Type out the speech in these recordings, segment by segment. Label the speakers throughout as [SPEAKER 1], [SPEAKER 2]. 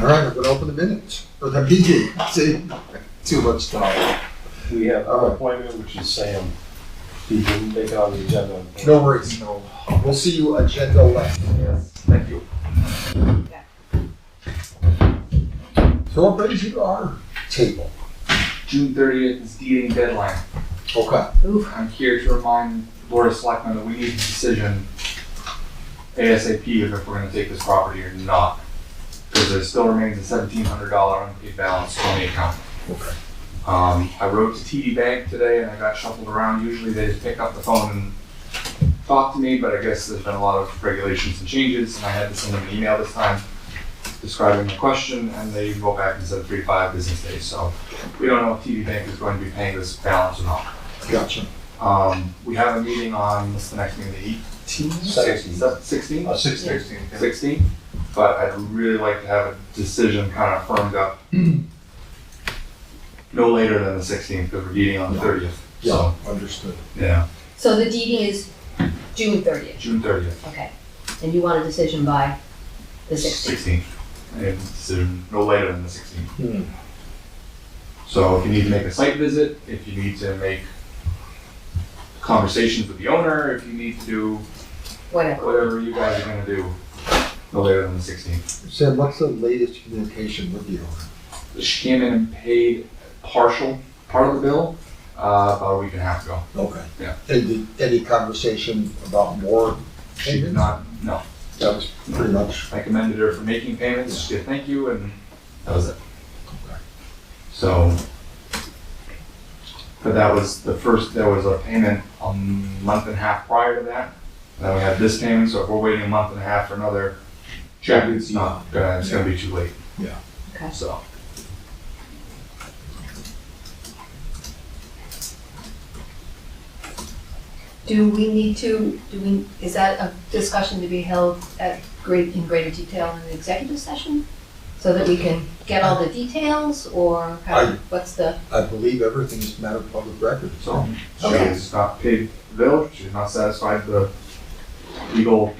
[SPEAKER 1] All right, I'm gonna open the minutes, or the meeting, see, too much time.
[SPEAKER 2] We have our appointment, which is Sam. He didn't take it on the agenda.
[SPEAKER 1] No worries, no, we'll see you agenda left. Yes. Thank you. So what brings you to our table?
[SPEAKER 3] June thirtieth is the dating deadline.
[SPEAKER 1] Okay,
[SPEAKER 3] I'm here to remind the Board of Selectmen that we need a decision ASAP if we're gonna take this property or not. Because there still remains a seventeen hundred dollar unpaid balance on the account.
[SPEAKER 1] Okay.
[SPEAKER 3] Um, I wrote to TD Bank today and I got shuffled around. Usually they just pick up the phone and talk to me, but I guess there's been a lot of regulations and changes and I had to send them an email this time describing the question and they wrote back and said three, to five business days. So we don't know if TD Bank is going to be paying this balance or not.
[SPEAKER 1] gotcha.
[SPEAKER 3] Um, we have a meeting on, what's the next meeting, the
[SPEAKER 2] Sixteen.
[SPEAKER 3] eighteenth, sixteenth,
[SPEAKER 2] Uh, six sixteen.
[SPEAKER 3] sixteenth? But I'd really like to have a decision kind of firmed up no later than the sixteenth, because we're meeting on the thirtieth.
[SPEAKER 1] Yeah, understood.
[SPEAKER 3] Yeah,
[SPEAKER 4] So the DD is June thirtieth,
[SPEAKER 3] June thirtieth.
[SPEAKER 4] okay. And you want a decision by the sixteenth?
[SPEAKER 3] decision no later than the sixteenth.
[SPEAKER 1] Hmm.
[SPEAKER 3] So if you need to make a site visit, if you need to make conversations with the owner, if you need to do
[SPEAKER 4] Whatever.
[SPEAKER 3] whatever you guys are gonna do, no later than the sixteenth.
[SPEAKER 1] Sam, what's the latest communication with you?
[SPEAKER 3] she came in and paid partial part of the bill uh, about a week and a half ago.
[SPEAKER 1] Okay.
[SPEAKER 3] Yeah.
[SPEAKER 1] Any, any conversation about more?
[SPEAKER 3] She did not. No,
[SPEAKER 1] That was pretty much,
[SPEAKER 3] I commended her for making payments. She said thank you, and that was it.
[SPEAKER 1] Okay.
[SPEAKER 3] So, but that was the first. There was a payment a month and a half prior to that. And then we have this payment. So if we're waiting a month and a half for another check, it's not. Gonna, it's going to be too late.
[SPEAKER 1] Yeah.
[SPEAKER 4] Okay.
[SPEAKER 3] So.
[SPEAKER 4] Do we need to, do we, is that a discussion to be held at great, in greater detail in the executive session? So that we can get all the details or how,
[SPEAKER 1] I-
[SPEAKER 4] what's the,
[SPEAKER 1] I believe everything is matter of public record.
[SPEAKER 3] So
[SPEAKER 4] Okay.
[SPEAKER 3] she's not paid the bill, she's not satisfied with the legal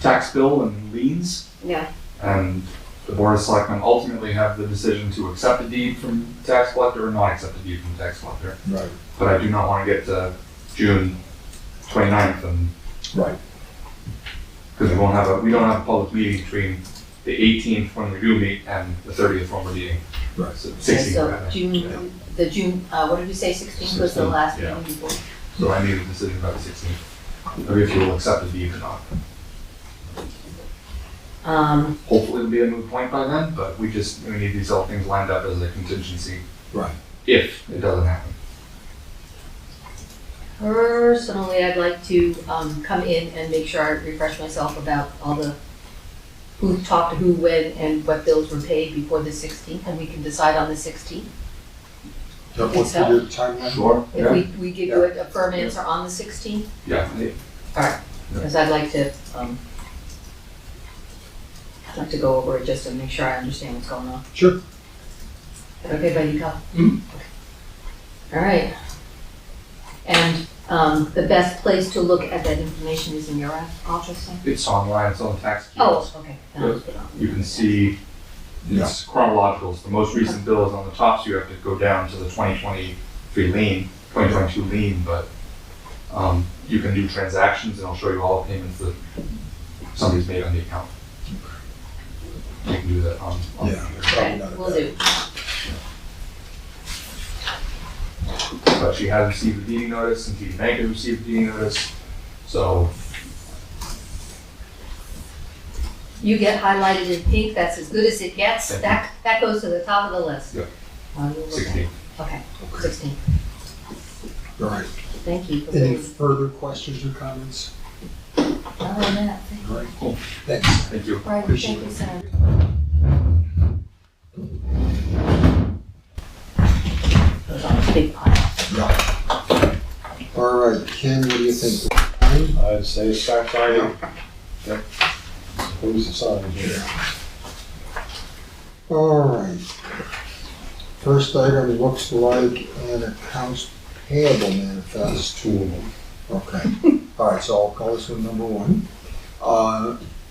[SPEAKER 3] tax bill and liens.
[SPEAKER 4] yeah,
[SPEAKER 3] And the board of selectmen ultimately have the decision to accept a deed from the tax collector or not accept a deed from the tax collector.
[SPEAKER 1] Right,
[SPEAKER 3] But I do not want to get to June 29th and,
[SPEAKER 1] right.
[SPEAKER 3] because we won't have a, we don't have a public meeting between the eighteenth when we do meet and the thirtieth when we're meeting.
[SPEAKER 1] Right.
[SPEAKER 3] Sixteenth
[SPEAKER 4] so
[SPEAKER 3] rather. Yeah.
[SPEAKER 4] June, the June, uh, what did we say, sixteenth was the
[SPEAKER 3] 16th,
[SPEAKER 4] last
[SPEAKER 3] yeah.
[SPEAKER 4] meeting before?
[SPEAKER 3] So I need a decision by the sixteenth, or if you will accept a deed or not.
[SPEAKER 4] Um,
[SPEAKER 3] hopefully it'll be a moot point by then, but we just, we need these all things lined up as a contingency.
[SPEAKER 1] Right.
[SPEAKER 3] If it doesn't happen.
[SPEAKER 4] personally, I'd like to, um, come in and make sure I refresh myself about all the who talked to who, when, and what bills were paid before the sixteenth, and we can decide on the sixteenth.
[SPEAKER 1] That what's the
[SPEAKER 4] Excel?
[SPEAKER 1] timeline?
[SPEAKER 3] Sure.
[SPEAKER 4] If
[SPEAKER 3] Yeah,
[SPEAKER 4] we, we give you a a firm answer on the sixteenth,
[SPEAKER 3] yeah,
[SPEAKER 4] because I'd like to, um, I'd like to go over it just to make sure I understand what's going on.
[SPEAKER 1] Sure.
[SPEAKER 4] Is that Okay, buddy, go.
[SPEAKER 3] Mhm.
[SPEAKER 4] All right. And, um, the best place to look at that information is in your office, then?
[SPEAKER 3] it's online, it's on tax.
[SPEAKER 4] Oh,
[SPEAKER 3] keys.
[SPEAKER 4] okay. Then I'll put it on.
[SPEAKER 3] You can see, it's chronological, so the most recent bill is on the top, so you have to go down to the twenty twenty-three lien, twenty twenty-two lien, but, um, you can do transactions and it'll show you all the payments that somebody's made on the account. You can do that on, on the
[SPEAKER 1] Yeah.
[SPEAKER 3] computer.
[SPEAKER 1] Probably not
[SPEAKER 4] Okay,
[SPEAKER 1] a
[SPEAKER 4] will
[SPEAKER 1] bad-
[SPEAKER 4] do.
[SPEAKER 3] but she has received a deeding notice, and TD Bank has received a deeding notice, so
[SPEAKER 4] You get highlighted in pink, that's as good as it gets.
[SPEAKER 3] Thank you.
[SPEAKER 4] That, that goes to the top of the list.
[SPEAKER 3] Yeah.
[SPEAKER 4] Uh, we'll look at it.
[SPEAKER 3] sixteen.
[SPEAKER 4] Okay,
[SPEAKER 1] Okay,
[SPEAKER 4] sixteen.
[SPEAKER 1] all right.
[SPEAKER 4] Thank you for
[SPEAKER 1] Any
[SPEAKER 4] being,
[SPEAKER 1] further questions or comments?
[SPEAKER 4] oh, that, thank you.
[SPEAKER 1] All right, cool. Thanks.
[SPEAKER 3] Thank you.
[SPEAKER 4] Right,
[SPEAKER 1] Appreciate
[SPEAKER 4] thank
[SPEAKER 1] it.
[SPEAKER 4] you, Sam. Those are a big pile.
[SPEAKER 1] Yeah. All right, Ken, what do you think? Fine?
[SPEAKER 2] I'd say start signing. Yep. Who's the sign here?
[SPEAKER 1] All right. First item looks like an accounts payable manifest.
[SPEAKER 2] There's two of them.
[SPEAKER 1] Okay, all right, so I'll call this one number one. Uh,